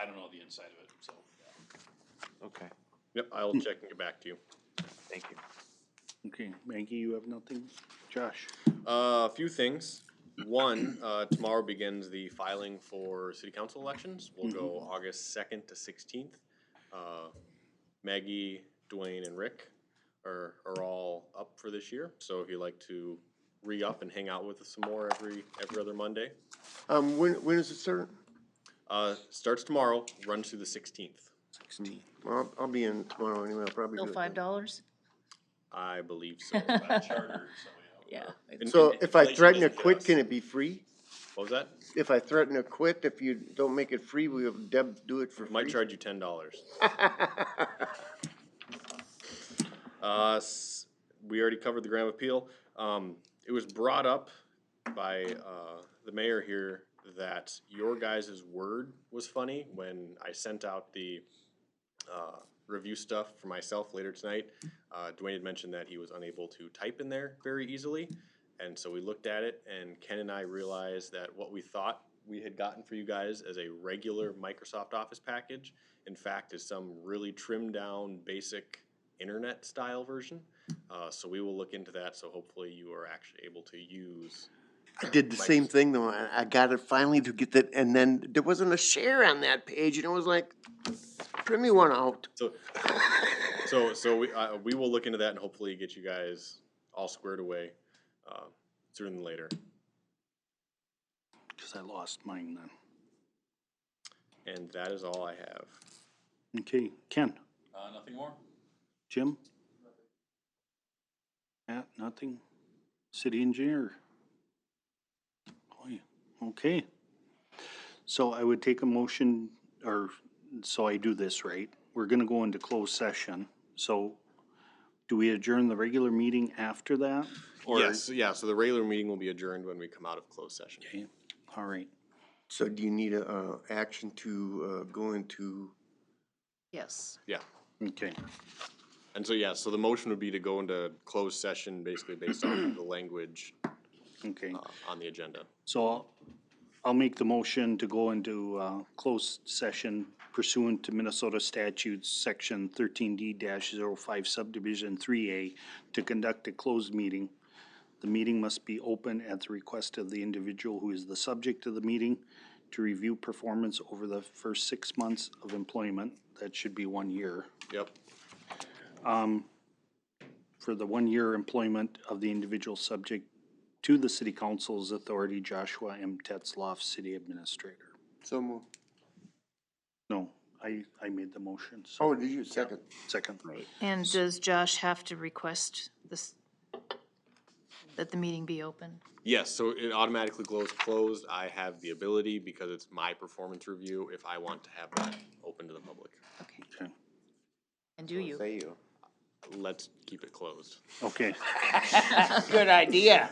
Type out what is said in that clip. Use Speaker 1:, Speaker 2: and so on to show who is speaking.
Speaker 1: I don't know the inside of it, so.
Speaker 2: Okay,
Speaker 3: Yep, I'll
Speaker 4: Hmm.
Speaker 3: check and get back to you.
Speaker 2: thank you.
Speaker 5: Okay, Maggie, you have nothing? Josh?
Speaker 3: Uh, a few things. One, uh, tomorrow begins the filing for city council elections. We'll go
Speaker 4: Mm-hmm.
Speaker 3: August second to sixteenth. Uh, Maggie, Dwayne, and Rick are, are all up for this year, so if you'd like to re-up and hang out with us some more every, every other Monday.
Speaker 4: Um, when, when is it start?
Speaker 3: Uh, starts tomorrow, runs through the sixteenth,
Speaker 4: Well, I'll- I'll be in tomorrow anyway, I'll probably do
Speaker 6: Still
Speaker 4: it.
Speaker 6: five
Speaker 4: then.
Speaker 6: dollars?
Speaker 3: I believe so.
Speaker 1: By charter, so, yeah.
Speaker 6: Yeah.
Speaker 3: And-
Speaker 4: So
Speaker 3: and
Speaker 4: if I
Speaker 3: inflation
Speaker 4: threaten to
Speaker 3: doesn't hit
Speaker 4: quit,
Speaker 3: us.
Speaker 4: can it be free?
Speaker 3: What was that?
Speaker 4: If I threaten to quit, if you don't make it free, will Deb do it for free?
Speaker 3: Might charge you ten dollars. Uh, s- we already covered the Graham appeal. Um, it was brought up by, uh, the mayor here that your guys' word was funny when I sent out the, uh, review stuff for myself later tonight. Uh, Dwayne had mentioned that he was unable to type in there very easily. And so we looked at it and Ken and I realized that what we thought we had gotten for you guys as a regular Microsoft Office package, in fact, is some really trimmed down, basic internet style version. Uh, so we will look into that. So hopefully you are actually able to use.
Speaker 4: I did the same thing though, I, I got it finally to get that, and then there wasn't a share on that page, and it was like, print me one out.
Speaker 3: So, so, so we, uh, we will look into that and hopefully get you guys all squared away, uh, sooner than later.
Speaker 5: Because I lost mine then.
Speaker 3: And that is all I have.
Speaker 5: Okay, Ken?
Speaker 1: Uh, nothing more?
Speaker 5: Jim? Matt, nothing? City engineer? Boy, Okay. So I would take a motion, or, so I do this right. We're gonna go into closed session, so do we adjourn the regular meeting after that? Or-
Speaker 3: Yes, yeah, so the regular meeting will be adjourned when we come out of closed session.
Speaker 5: Okay, All right,
Speaker 4: So do you need a, uh, action to, uh, go into,
Speaker 6: Yes.
Speaker 3: Yeah,
Speaker 5: okay,
Speaker 3: and so, yeah, so the motion would be to go into closed session basically based on the language
Speaker 5: okay.
Speaker 3: uh, on the agenda.
Speaker 5: So I'll- I'll make the motion to go into uh, closed session pursuant to Minnesota statutes, section thirteen D 5 subdivision three A, to conduct a closed meeting. The meeting must be open at the request of the individual who is the subject of the meeting to review performance over the first six months of employment, that should be one year,
Speaker 3: Yep,
Speaker 5: for the one-year employment of the individual subject to the city council's authority, Joshua M. Tetzloff, city administrator.
Speaker 4: so move.
Speaker 5: No, I, I made the motion, so
Speaker 4: Oh, did you, second?
Speaker 5: second.
Speaker 6: And does Josh have to request this, that the meeting be open?
Speaker 3: yes, so it automatically goes closed. I have the ability, because it's my performance review, if I want to have that open to the public.
Speaker 6: Okay.
Speaker 5: Okay.
Speaker 6: And do you?
Speaker 2: Say you.
Speaker 3: Let's keep it closed.
Speaker 5: Okay.
Speaker 2: Good idea.